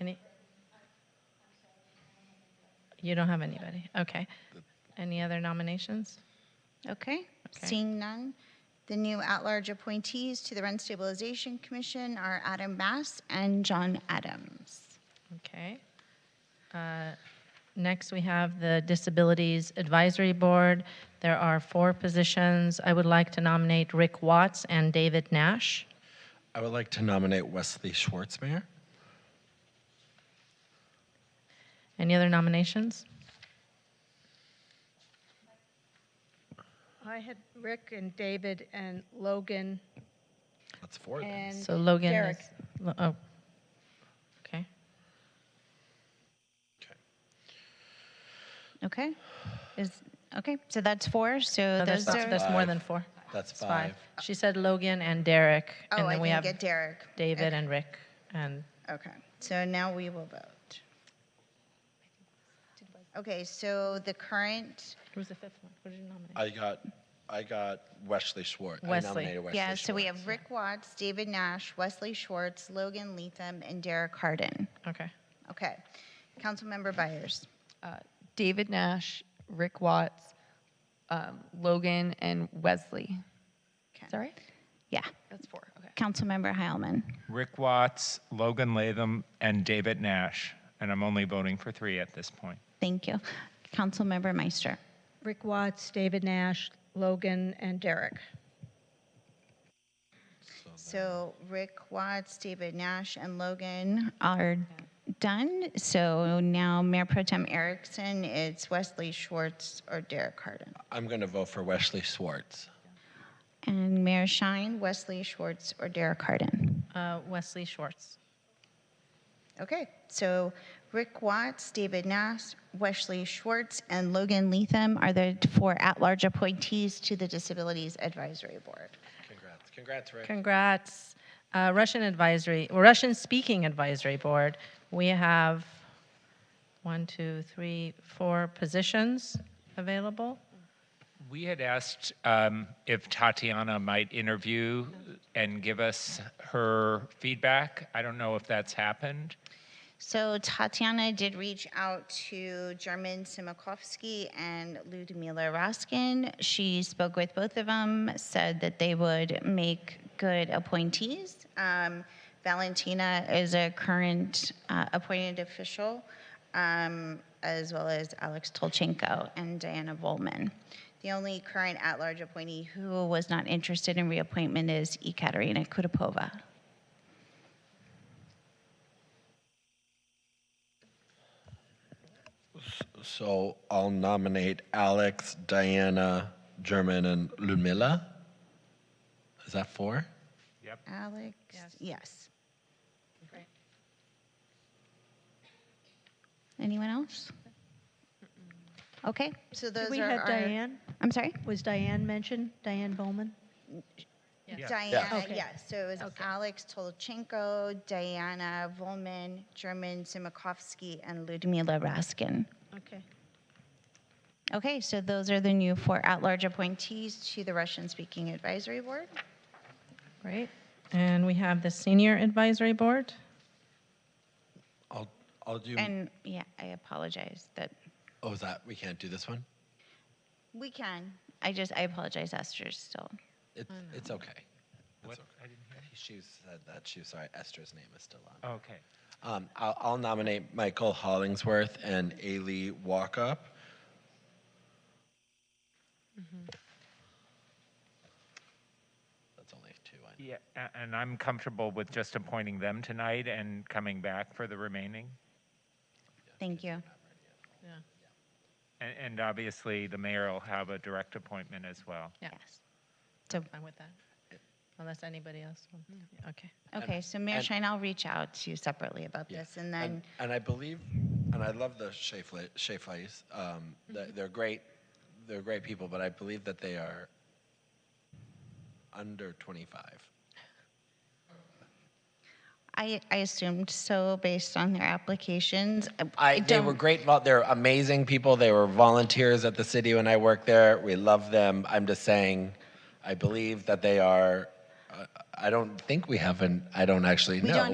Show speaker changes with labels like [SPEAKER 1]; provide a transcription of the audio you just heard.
[SPEAKER 1] Any? You don't have anybody? Okay. Any other nominations?
[SPEAKER 2] Okay,
[SPEAKER 1] Okay.
[SPEAKER 2] seeing none. The new at-large appointees to the Rent Stabilization Commission are Adam Bass and John Adams.
[SPEAKER 1] Okay. Uh, Next, we have the Disabilities Advisory Board. There are four positions. I would like to nominate Rick Watts and David Nash.
[SPEAKER 3] I would like to nominate Wesley Schwartzmeyer.
[SPEAKER 1] Any other nominations?
[SPEAKER 4] I had Rick and David and Logan
[SPEAKER 3] That's four. then.
[SPEAKER 4] and
[SPEAKER 1] So Logan
[SPEAKER 4] Derek.
[SPEAKER 1] is. Lo- Oh, okay.
[SPEAKER 2] Okay, is, okay, so that's four, so
[SPEAKER 1] No,
[SPEAKER 2] those
[SPEAKER 1] There's
[SPEAKER 2] are.
[SPEAKER 1] there's more than four.
[SPEAKER 3] That's
[SPEAKER 1] It's five.
[SPEAKER 3] five.
[SPEAKER 1] She said Logan and Derek.
[SPEAKER 2] Oh,
[SPEAKER 1] and
[SPEAKER 2] I
[SPEAKER 1] then we
[SPEAKER 2] didn't
[SPEAKER 1] have
[SPEAKER 2] get Derek.
[SPEAKER 1] David and Rick and
[SPEAKER 2] Okay, so now we will vote. Okay, so the current,
[SPEAKER 1] Who's the fifth one? What did you nominate?
[SPEAKER 3] I got, I got Wesley Schwartz.
[SPEAKER 1] Wesley.
[SPEAKER 3] I nominated Wesley
[SPEAKER 2] yeah, so we
[SPEAKER 3] Schwartz.
[SPEAKER 2] have Rick Watts, David Nash, Wesley Schwartz, Logan Leatham, and Derek Hardin.
[SPEAKER 1] Uh, Okay.
[SPEAKER 2] Okay, Councilmember Byers.
[SPEAKER 5] uh, David Nash, Rick Watts, um, Logan, and Wesley.
[SPEAKER 2] Okay.
[SPEAKER 5] Is that right?
[SPEAKER 2] Yeah,
[SPEAKER 5] That's four. Okay.
[SPEAKER 2] Councilmember Heilman.
[SPEAKER 6] Rick Watts, Logan Latham, and David Nash. And I'm only voting for three at this point.
[SPEAKER 2] Thank you. Councilmember Meister.
[SPEAKER 4] Rick Watts, David Nash, Logan and Derek.
[SPEAKER 2] So Rick Watts, David Nash, and Logan are done. So now Mayor Pro Tem Erickson, it's Wesley Schwartz or Derek Hardin.
[SPEAKER 3] I'm going to vote for Wesley Schwartz.
[SPEAKER 2] And Mayor Shine, Wesley Schwartz or Derek Hardin.
[SPEAKER 1] Uh, Wesley Schwartz.
[SPEAKER 2] Okay, so Rick Watts, David Nash, Wesley Schwartz, and Logan Leatham are the four at-large appointees to the Disabilities Advisory Board.
[SPEAKER 3] Congrats. Congrats, Rick.
[SPEAKER 1] Congrats. Uh, Russian Advisory, Russian Speaking Advisory Board. We have one, two, three, four positions available.
[SPEAKER 6] We had asked um, if Tatiana might interview and give us her feedback. I don't know if that's happened.
[SPEAKER 2] So Tatiana did reach out to German Simakovsky and Ludmila Raskin. She spoke with both of them, said that they would make good appointees. Um, Valentina is a current uh, appointed official, um, as well as Alex Tolchenko and Diana Volman. The only current at-large appointee who was not interested in reappointment is Ekaterina Kudapova.
[SPEAKER 3] So I'll nominate Alex, Diana, German, and Ludmilla. Is that four?
[SPEAKER 2] Alex, yes. Anyone else? Okay, so those
[SPEAKER 4] Did we
[SPEAKER 2] are
[SPEAKER 4] had
[SPEAKER 2] our-
[SPEAKER 4] Diane?
[SPEAKER 2] I'm sorry?
[SPEAKER 4] Was Diane mentioned? Diane Bowman?
[SPEAKER 2] Diana,
[SPEAKER 4] Okay.
[SPEAKER 2] yes, so it was Alex Tolchenko, Diana Volman, German Simakovsky, and Ludmila Raskin.
[SPEAKER 4] Okay.
[SPEAKER 2] Okay, so those are the new four at-large appointees to the Russian-speaking advisory board.
[SPEAKER 1] Great. And we have the Senior Advisory Board.
[SPEAKER 3] I'll, I'll do.
[SPEAKER 2] And, yeah, I apologize that,
[SPEAKER 3] oh, is that we can't do this one?
[SPEAKER 2] we can, I just, I apologize, Esther's still. Oh,
[SPEAKER 3] It's it's okay.
[SPEAKER 6] What?
[SPEAKER 3] It's okay.
[SPEAKER 6] I didn't hear.
[SPEAKER 3] She said that. She sorry. Esther's name is still on.
[SPEAKER 6] Okay.
[SPEAKER 3] Um, I'll, I'll nominate Michael Hollingsworth and Ailey Walkup. That's only two. I know.
[SPEAKER 6] Yeah, a- and I'm comfortable with just appointing them tonight and coming back for the remaining.
[SPEAKER 2] Thank you.
[SPEAKER 6] And, and obviously, the mayor will have a direct appointment as well.
[SPEAKER 1] Yeah.
[SPEAKER 2] Yes. So,
[SPEAKER 1] I'm with that. Mm. Unless anybody else wants. Okay.
[SPEAKER 2] okay, so Mayor
[SPEAKER 3] and-
[SPEAKER 2] Shine, I'll reach out to you separately about
[SPEAKER 3] Yeah.
[SPEAKER 2] this, and then,
[SPEAKER 3] and I believe, and I love the Shayflies. Um, th- They're great. They're great people, but I believe that they are under 25.
[SPEAKER 2] I, I assumed so based on their applications.
[SPEAKER 3] I, they
[SPEAKER 2] don't-
[SPEAKER 3] were great. Vol- they're amazing people. They were volunteers at the city when I worked there. We love them. I'm just saying, I believe that they are. Uh, I don't think we have an. I don't actually
[SPEAKER 2] We
[SPEAKER 3] know.
[SPEAKER 2] don't